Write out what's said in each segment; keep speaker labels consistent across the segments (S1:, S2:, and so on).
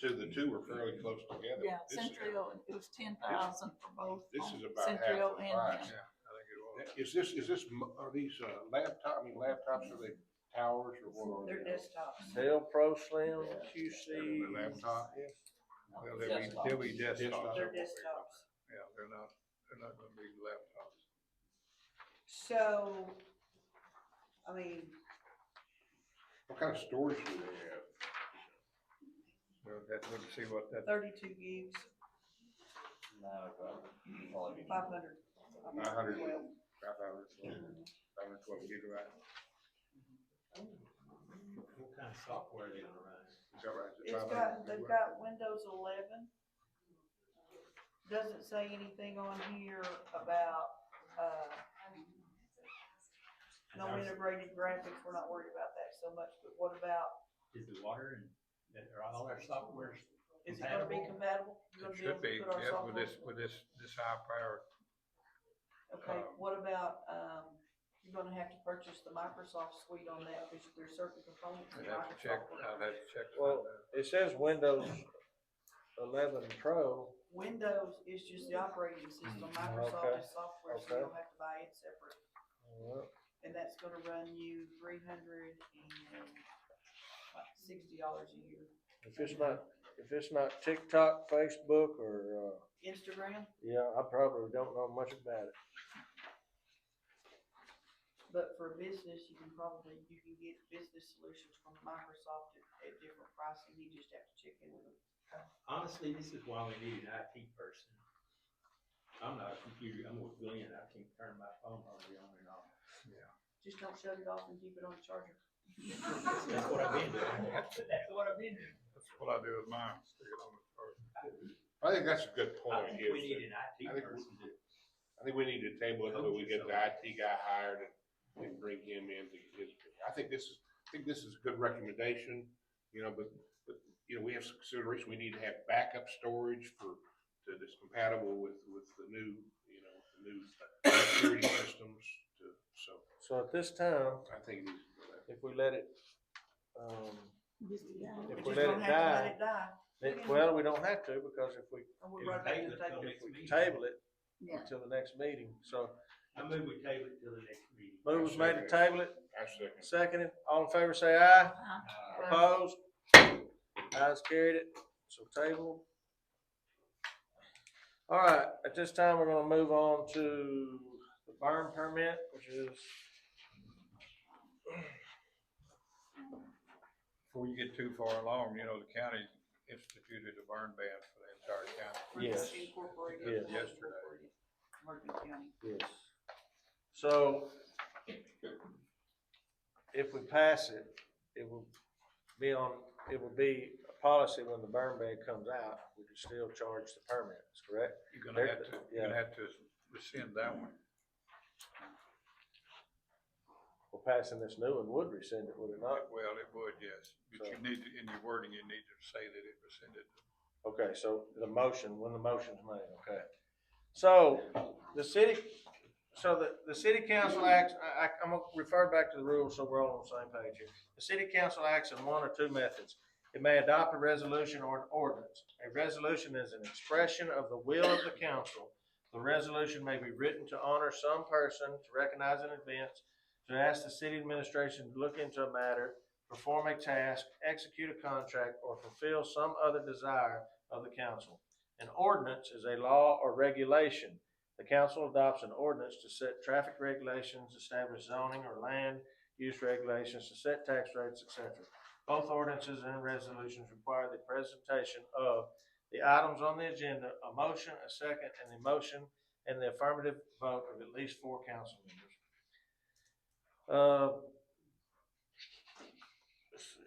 S1: two, the two were fairly close together.
S2: Yeah,
S1: This is-
S2: Centrio, it was ten thousand for both.
S1: This
S2: on
S1: is about half
S2: Centrio
S1: the
S2: and
S1: price.
S2: them.
S1: Is this, is this, m- are these uh, laptop, I mean laptops, are they towers or what are they?
S3: They're desktops.
S4: Dell Pro Slim
S1: They're
S4: QC.
S1: Laptop?
S5: Well, they'll be, they'll be desktops.
S3: They're desktops.
S5: Yeah, they're not, they're not gonna be laptops.
S3: So, I mean,
S1: What kind of storage do they have?
S5: So that, we'll see what that,
S3: thirty-two gigs, five hundred.
S1: Nine hundred, five hundred, five hundred twelve gigabyte,
S6: What kind of software are you gonna run?
S1: is that right?
S3: It's got, they've got Windows eleven. Doesn't say anything on here about, uh,
S6: And
S3: no
S6: how's-
S3: integrated graphics, we're not worried about that so much, but what about,
S6: Is the water and, that- are all our softwares
S3: is it gonna be
S6: compatible?
S3: compatible? You
S5: it
S3: gonna
S5: should
S3: able to
S5: be,
S3: put our
S5: yeah, with
S3: software-
S5: this, with this, this high power,
S3: Okay,
S5: um,
S3: what about, um, you're gonna have to purchase the Microsoft suite on that, because there's certain components.
S5: I'd
S3: that
S5: have to check,
S3: Microsoft
S5: I'd
S3: will
S5: have to check.
S4: Well, It says Windows eleven Pro.
S3: Windows is just the operating system,
S5: Mm,
S3: Microsoft is software, so you don't have to buy it separate.
S4: Well,
S3: And that's gonna run you three hundred and sixty dollars a year.
S4: If it's not, if it's not TikTok, Facebook, or, uh,
S3: Instagram,
S4: yeah, I probably don't know much about it.
S3: but for business, you can probably, you can get business solutions from Microsoft at, at different pricing, you just have to check in with them.
S6: Honestly, this is why we need an IT person. I'm not a computer, I'm a civilian, I can turn my phone hardly on and off.
S3: Just don't shut it off and keep it on charger.
S6: That's what I've been doing. That's what I've been doing.
S5: That's what I do with mine, stick it on the charger.
S1: I think that's a good
S6: I
S1: point,
S6: think we
S1: is
S6: need
S1: that,
S6: an IT
S1: I think we-
S6: person to
S1: I think we need to table it until we get the IT guy hired and, and bring him in to get his, I think this is, I think this is a good recommendation, you know, but, but, you know, we have some consideration, we need to have backup storage for, that is compatible with, with the new, you know, the new security systems to, so,
S4: So at this time,
S1: I think it needs to go that.
S4: if we let it, um,
S2: Just a guy.
S4: If
S3: We
S4: we
S3: just
S4: let
S3: don't have to
S4: it die-
S3: let it die,
S4: it- well, we don't have to, because if we,
S3: and we'll
S6: If
S3: run back to
S6: they-
S3: the table.
S4: if we table it
S2: Yeah.
S4: until the next meeting, so.
S6: I move we table it till the next meeting.
S4: Move was made to table it,
S1: I second.
S4: seconded, all in favor say aye,
S2: Uh,
S4: opposed, ayes carried it, so table. All right, at this time, we're gonna move on to the burn permit, which is,
S5: Before you get too far along, you know, the county instituted a burn ban for the entire county.
S3: We're just
S4: Yes.
S3: incorporating
S4: Yes.
S3: it.
S5: Yesterday.
S3: Morgan County.
S4: yes. So, if we pass it, it will be on, it will be a policy when the burn ban comes out, we can still charge the permits, correct?
S5: You're gonna have to, you're
S4: Yeah.
S5: gonna have to rescind that one.
S4: Well, passing this new one would rescind it, would it not?
S5: Well, it would, yes, but you
S4: So-
S5: need, to- in your wording, you need to say that it rescinded.
S4: Okay, so the motion, when the motion's made, okay. So, the city, so the, the city council acts, I, I, I'm gonna refer back to the rules so we're all on the same page here. The city council acts in one or two methods. It may adopt a resolution or an ordinance. A resolution is an expression of the will of the council. The resolution may be written to honor some person, to recognize an event, to ask the city administration to look into a matter, perform a task, execute a contract, or fulfill some other desire of the council. An ordinance is a law or regulation. The council adopts an ordinance to set traffic regulations, establish zoning or land use regulations, to set tax rates, etc. Both ordinances and resolutions require the presentation of the items on the agenda, a motion, a second, and the motion and the affirmative vote of at least four council members. Uh, let's see.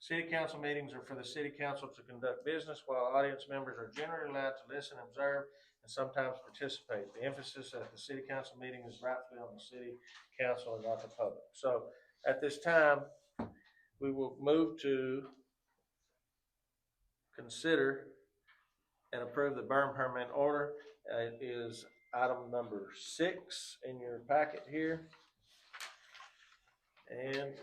S4: City council meetings are for the city council to conduct business while audience members are generally allowed to listen, observe, and sometimes participate. The emphasis at the city council meeting is rightfully on the city council and not the public. So at this time, we will move to consider and approve the burn permit order. Uh, It is item number six in your packet here. And